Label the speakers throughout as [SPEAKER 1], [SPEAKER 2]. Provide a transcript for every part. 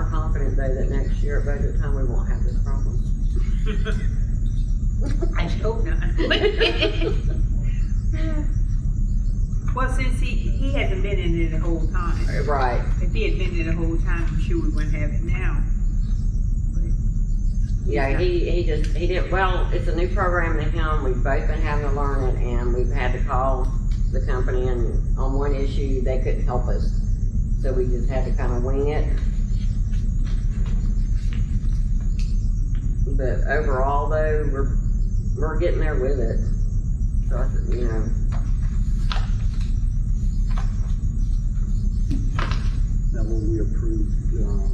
[SPEAKER 1] everybody that next year at budget time, we won't have this problem.
[SPEAKER 2] I hope not. Well, since he, he hasn't been in it the whole time,
[SPEAKER 1] Right.
[SPEAKER 2] if he had been in it the whole time, I'm sure we wouldn't have it now.
[SPEAKER 1] Yeah, he, he just, he did, well, it's a new program to him, we've both been having to learn it, and we've had to call the company, and on one issue, they couldn't help us, so we just had to kind of wing it. But overall, though, we're, we're getting there with it, so I, said, you know,
[SPEAKER 3] Now, when we approved, um,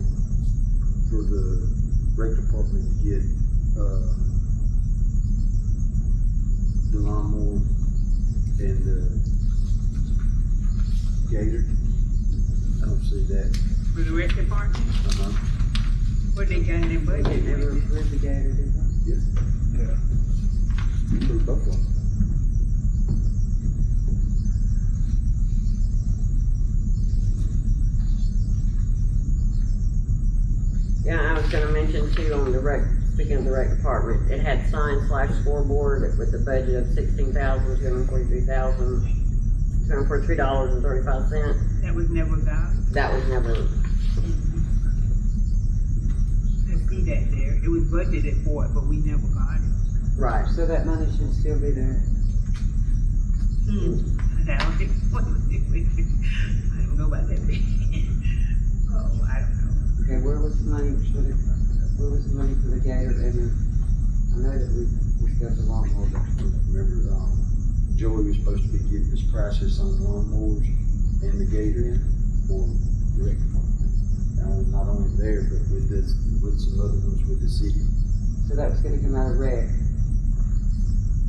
[SPEAKER 3] for the rec department to get, uh, the lawnmower and the gator, I don't see that.
[SPEAKER 2] For the rec department,
[SPEAKER 3] Uh-huh.
[SPEAKER 2] what they got in their budget,
[SPEAKER 1] we never
[SPEAKER 2] everything.
[SPEAKER 1] approved the gator, did we?
[SPEAKER 3] You approved both of them.
[SPEAKER 1] Yeah, I was gonna mention too, on the rec, speaking of the rec department, it had sign slash scoreboard with a budget of sixteen thousand, two hundred and forty-three thousand, two hundred and forty-three dollars and thirty-five cents.
[SPEAKER 2] that was never got.
[SPEAKER 1] That was never,
[SPEAKER 2] I see that there, it was budgeted for it, but we never got it.
[SPEAKER 1] right,
[SPEAKER 4] So that money should still be there.
[SPEAKER 2] And I don't think, what was it, I don't know about that thing. Oh, I don't know.
[SPEAKER 4] Okay, where was the money for the, where was the money for the gator and the, I know that we discussed the lawnmower, but
[SPEAKER 3] Remember, um, Joey was supposed to be getting his prices on the lawnmowers and the gator for the rec department. Now, not only there, but with this, with some other ones with the city.
[SPEAKER 4] so that was gonna come out of rec.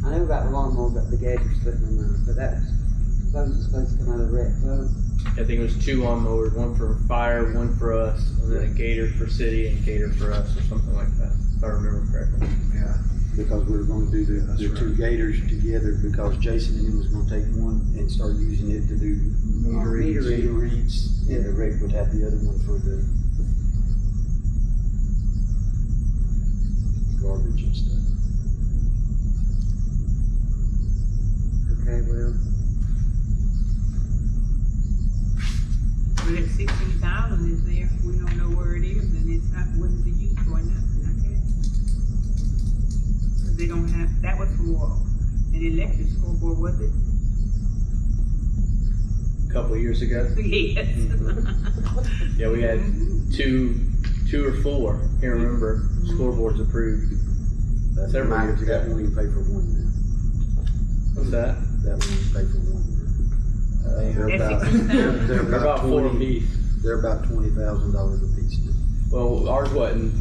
[SPEAKER 4] I knew about the lawnmower, but the gator slipped my mind, but that was, those was supposed to come out of rec, those.
[SPEAKER 5] I think it was two lawnmowers, one for fire, one for us, and then a gator for city and gator for us, or something like that, if I remember correctly.
[SPEAKER 3] Yeah, because we were gonna do the, the two gators together, because Jason and him was gonna take one and start using it to do
[SPEAKER 2] Oh,
[SPEAKER 3] meter reads.
[SPEAKER 4] Meter reads.
[SPEAKER 3] Meter reads, and the rec would have the other one for the garbage and stuff.
[SPEAKER 4] Okay, well,
[SPEAKER 2] But if sixteen thousand is there, we don't know where it is, and it's not, what is it used for, nothing, I guess. Cause they don't have, that was for an electric scoreboard, was it?
[SPEAKER 5] A couple of years ago,
[SPEAKER 2] Yes.
[SPEAKER 5] Oh, yeah, we had two, two or four, can't remember, scoreboards approved.
[SPEAKER 3] That
[SPEAKER 5] Several
[SPEAKER 3] one-
[SPEAKER 5] years ago.
[SPEAKER 3] That one we pay for one now,
[SPEAKER 5] What's that?
[SPEAKER 3] that one we pay for one. now.
[SPEAKER 5] Uh,
[SPEAKER 3] They're
[SPEAKER 2] That's
[SPEAKER 3] about-
[SPEAKER 2] $16,000.
[SPEAKER 3] they're-
[SPEAKER 5] They're
[SPEAKER 3] They're
[SPEAKER 5] about four
[SPEAKER 3] twenty-
[SPEAKER 5] apiece.
[SPEAKER 3] They're about twenty thousand dollars a piece now.
[SPEAKER 5] Well, ours wasn't,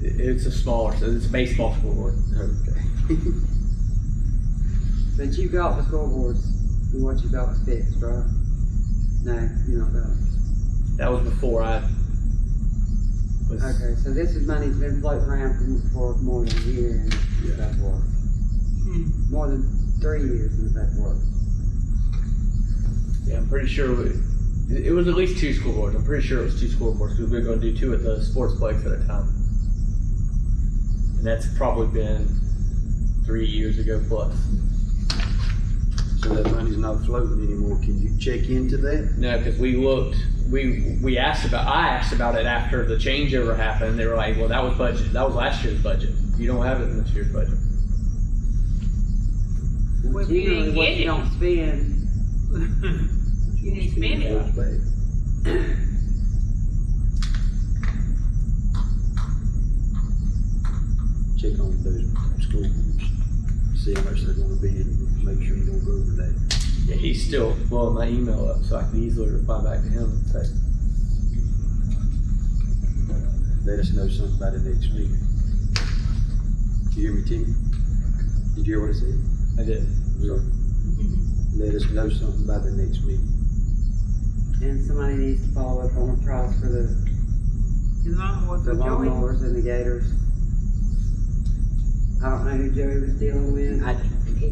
[SPEAKER 5] i- it's a smaller, so it's a baseball scoreboard.
[SPEAKER 3] Okay.
[SPEAKER 4] but you got the scoreboards, and what you got was fixed, right? No, you don't got it.
[SPEAKER 5] That was before I was,
[SPEAKER 4] Okay, so this is money's been floating around for, for more than a year and that's what.
[SPEAKER 2] Hmm.
[SPEAKER 4] more than three years since that work.
[SPEAKER 5] yeah, I'm pretty sure, we- it it was at least two scoreboards, I'm pretty sure it was two scoreboards, because we were gonna do two at the sports place at a time. And that's probably been three years ago plus.
[SPEAKER 3] So that money's not floating anymore, can you check into that?
[SPEAKER 5] No, because we looked, we, we asked about, I asked about it after the changeover happened. They were like, well, that was budget, that was last year's budget. You don't have it in this year's budget.
[SPEAKER 2] Well, if you
[SPEAKER 4] Generally,
[SPEAKER 2] didn't
[SPEAKER 4] what
[SPEAKER 2] get
[SPEAKER 4] you
[SPEAKER 2] it.
[SPEAKER 4] don't spend,
[SPEAKER 2] You didn't spend it.
[SPEAKER 3] Goes back. Check on those school groups, see how much they're gonna be, and make sure you don't go over that.
[SPEAKER 5] Yeah, he's still blowing my email up, so I can easily reply back to him and say,
[SPEAKER 3] Let us know something by the next week. You hear me, Timmy? Did you hear what I said?
[SPEAKER 5] I did.
[SPEAKER 3] So, Let us know something by the next week.
[SPEAKER 4] and somebody needs to follow up on the price for the,
[SPEAKER 2] The lawnmower for
[SPEAKER 4] the
[SPEAKER 2] Joey.
[SPEAKER 4] lawnmowers and the gators. I don't know who Joey was dealing with.
[SPEAKER 1] I,